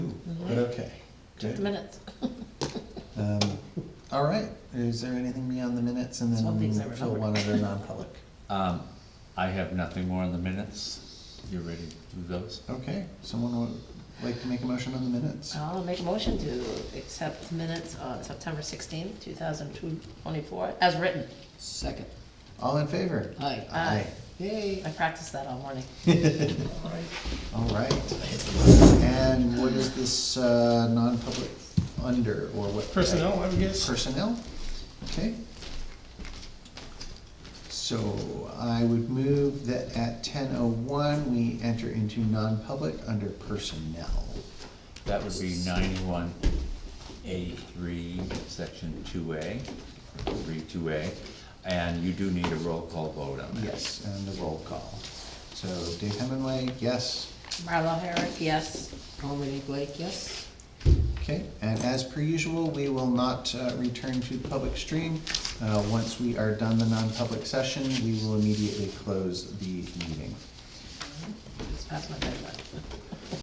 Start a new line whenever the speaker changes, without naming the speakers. but okay.
Check the
Good.
minutes.
Um, All right, is there anything beyond the minutes and then
Some things I
she'll
remember.
want it in non-public?
Um, I have nothing more on the minutes. You ready to do those?
Okay, someone would like to make a motion on the minutes?
I'll make a motion to accept minutes on September sixteenth, two thousand two twenty-four, as written.
Second.
All in favor?
Aye.
Aye.
Yay.
I practiced that all morning.
All right. And what is this, uh, non-public under, or what?
Personnel, I would guess.
Personnel, okay. So I would move that at ten oh one, we enter into non-public under personnel.
That would be ninety-one A three, section two A, three two A. And you do need a roll call vote on that.
Yes, and the roll call. So Dave Hemingway, yes,
Marlo Herrick, yes.
Colleen Blake, yes?
okay. And as per usual, we will not uh, return to the public stream. Uh, Once we are done the non-public session, we will immediately close the meeting.
Just pass my bedtime.